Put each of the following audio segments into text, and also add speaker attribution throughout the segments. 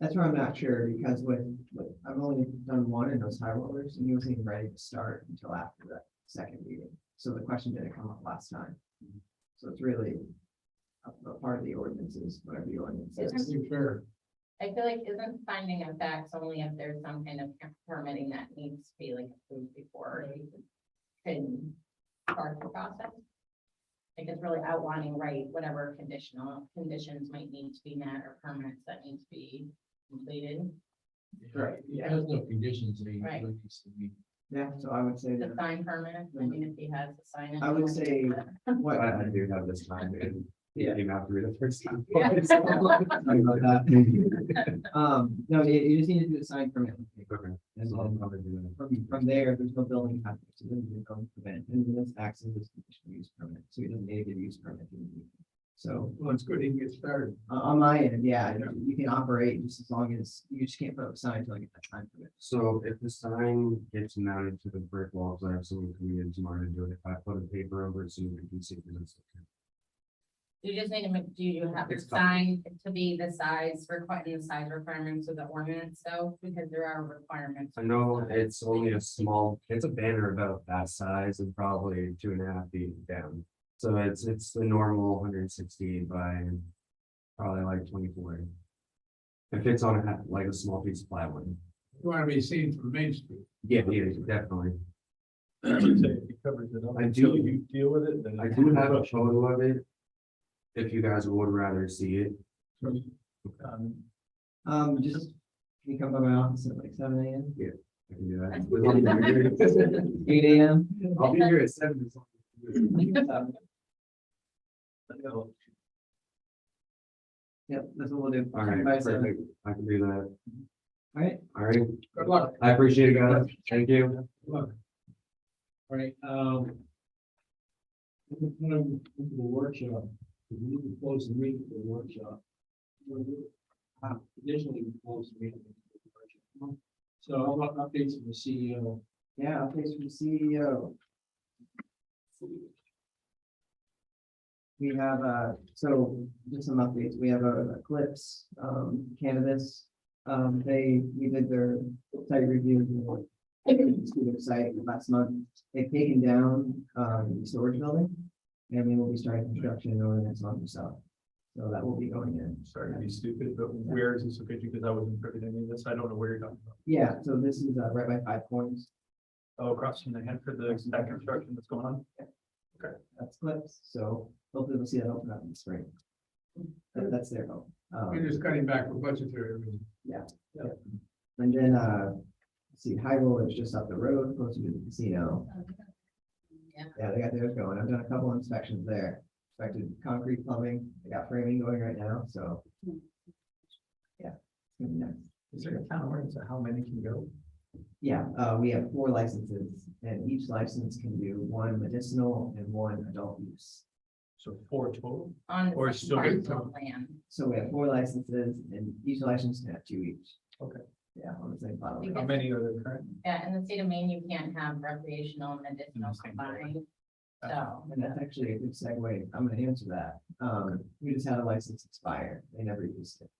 Speaker 1: That's where I'm not sure, because when, when- I've only done one in those high rollers, and he wasn't even ready to start until after the second meeting. So the question didn't come up last time. So it's really a, a part of the ordinances, whatever the ordinance is.
Speaker 2: Isn't- I feel like isn't finding of facts only if there's some kind of permitting that needs to be like approved before you can start the process? Like it's really outlining, right, whatever conditional conditions might need to be met or permits that need to be completed.
Speaker 1: Right,
Speaker 3: It
Speaker 1: yeah.
Speaker 3: has no conditions, I mean.
Speaker 2: Right.
Speaker 3: it needs to be-
Speaker 1: Yeah, so I would say
Speaker 2: The
Speaker 1: that,
Speaker 2: sign permit, I mean, if he has the sign. in
Speaker 1: I would
Speaker 2: hand.
Speaker 1: say what,
Speaker 4: I I do have this time and you
Speaker 1: Yeah.
Speaker 4: didn't have to read it first time.
Speaker 2: Yeah.
Speaker 1: Sorry about that. Um, no, you, you just need to do the sign permit.
Speaker 4: Okay.
Speaker 1: And
Speaker 4: So I'll
Speaker 1: then
Speaker 4: probably do that.
Speaker 1: from, from there, there's no building permit, so then you don't prevent, and then this acts as a conditional use permit, so you don't need to get a use permit. So
Speaker 3: Well, it's good, he can get started.
Speaker 1: uh, on my end, yeah, you- you can operate just as long as, you just can't put up signs until you get that sign permit.
Speaker 4: So if the sign gets mounted to the brick wall, because I have someone coming in tomorrow to do it, if I put a paper over it so you can see. that it's okay.
Speaker 2: You just need to make, do you have the
Speaker 4: It's fine.
Speaker 2: sign to be the size requirement, the size requirements of the ordinance, so, because there are requirements.
Speaker 4: I know it's only a small, it's a banner about that size and probably two and a half feet down. So it's, it's the normal hundred and sixty by probably like twenty-four. It fits on a, ha- like a small piece of plywood.
Speaker 3: You wanna be seen from Main Street.
Speaker 4: Yeah, yeah, definitely. I do-
Speaker 5: Until you deal with it, then.
Speaker 4: I do have a photo of it. If you guys would rather see it.
Speaker 5: Um,
Speaker 1: Um, just, can you come by my office at like seven AM,
Speaker 4: I can do that.
Speaker 1: eight AM?
Speaker 4: I'll be here at seven.
Speaker 1: Um, Yep, that's what we'll do.
Speaker 4: All right,
Speaker 1: By seven.
Speaker 4: perfect. I can do that.
Speaker 1: All right,
Speaker 4: All right,
Speaker 3: Good luck.
Speaker 4: I appreciate it, guys. Thank you.
Speaker 3: Look. All right, um. we're gonna move to the workshop, we need to close the meeting for the workshop. We're gonna- uh, Additionally, we close the meeting. for the workshop. So I want updates from the E CEO.
Speaker 1: yeah, updates from E the CEO. We have, uh, so just some updates. We have a Eclipse, um, cannabis. Um, they, we did their site review of the student site last month. They've taken down, um, the storage building. And they will be starting construction over the next month or so. So that will be going in.
Speaker 5: sorry to be stupid, but where is this located? Because I wasn't privy to any of this. I don't know where you're talking about.
Speaker 1: Yeah, so this is, uh, right by Five Points.
Speaker 5: Oh, across from the Hanford, the that construction that's going on.
Speaker 1: that's clips, so hopefully we'll see that open up in the spring. That- that's their hope.
Speaker 3: We're
Speaker 1: Um,
Speaker 3: just cutting back for budgetary reasons.
Speaker 1: and then, uh, let's see, High Rollers just up the road, close to the casino. Yeah, they got theirs going. I've done a couple inspections there. Inspected concrete plumbing, they got framing going right now, so. Yeah. it's gonna be nice.
Speaker 5: Is there a town ordinance on how many can go?
Speaker 1: Yeah, uh, we have four licenses and each license can do one medicinal and one adult use.
Speaker 5: So four total?
Speaker 2: On
Speaker 5: Or
Speaker 2: the
Speaker 5: still
Speaker 2: same
Speaker 5: get some.
Speaker 2: parcel land.
Speaker 1: So we have four licenses and each license can have two each.
Speaker 5: Okay.
Speaker 1: Yeah, on the same bottle.
Speaker 2: We
Speaker 5: How
Speaker 2: can-
Speaker 5: many are there current?
Speaker 2: Yeah, in the state of Maine, you can't have recreational and medicinal
Speaker 5: the same building.
Speaker 2: combined,
Speaker 5: Gotcha.
Speaker 2: so.
Speaker 1: And that's actually a good segue. I'm gonna answer that. Um, we just had a license expire. They never used it.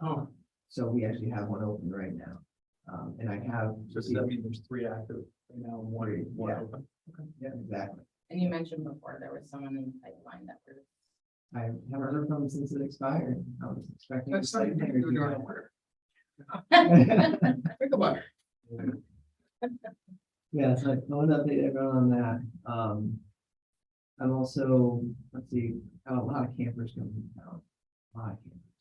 Speaker 3: Oh,
Speaker 1: So we actually have one open right now. Um, and I have.
Speaker 5: So does that mean there's three active right now, and one, one
Speaker 1: Yeah.
Speaker 5: open?
Speaker 1: Yeah, exactly.
Speaker 2: And you mentioned before, there was someone in the pipeline that was.
Speaker 1: I haven't heard from them since it expired. I was expecting.
Speaker 3: that's not, you're doing it on order. Think about it.
Speaker 1: Yeah, so I want to update everyone on that. Um. I'm also, let's see, I have a lot of campers coming to town. A lot of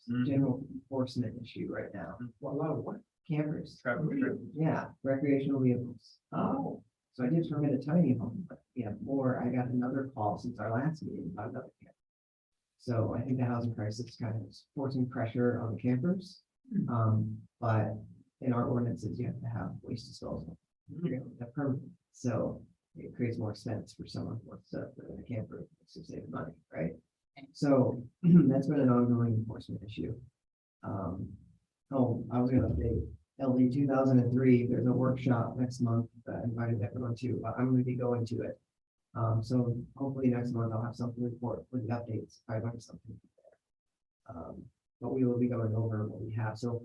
Speaker 5: Mm.
Speaker 1: campers. General enforcement issue right now.
Speaker 3: Well, a lot of what?
Speaker 1: Campers.
Speaker 5: Traffic
Speaker 3: Really?
Speaker 1: Yeah, recreational vehicles. Oh. So I did permit a tiny home, but yeah, or I got another call since our last meeting about another camper. So I think the housing crisis is kind of is forcing pressure on the campers. Um, but in our ordinances, you have to have waste disposal. you know, the permit. So it creates more sense for someone who wants to put in a camper to save money, right? So that's been an ongoing enforcement issue. Um, oh, I was gonna update LD two thousand and three, there's a workshop next month that I invited everyone to, but I'm gonna be going to it. Um, so hopefully next month I'll have something to report with the updates, if I learned something. Um, but we will be going over what we have so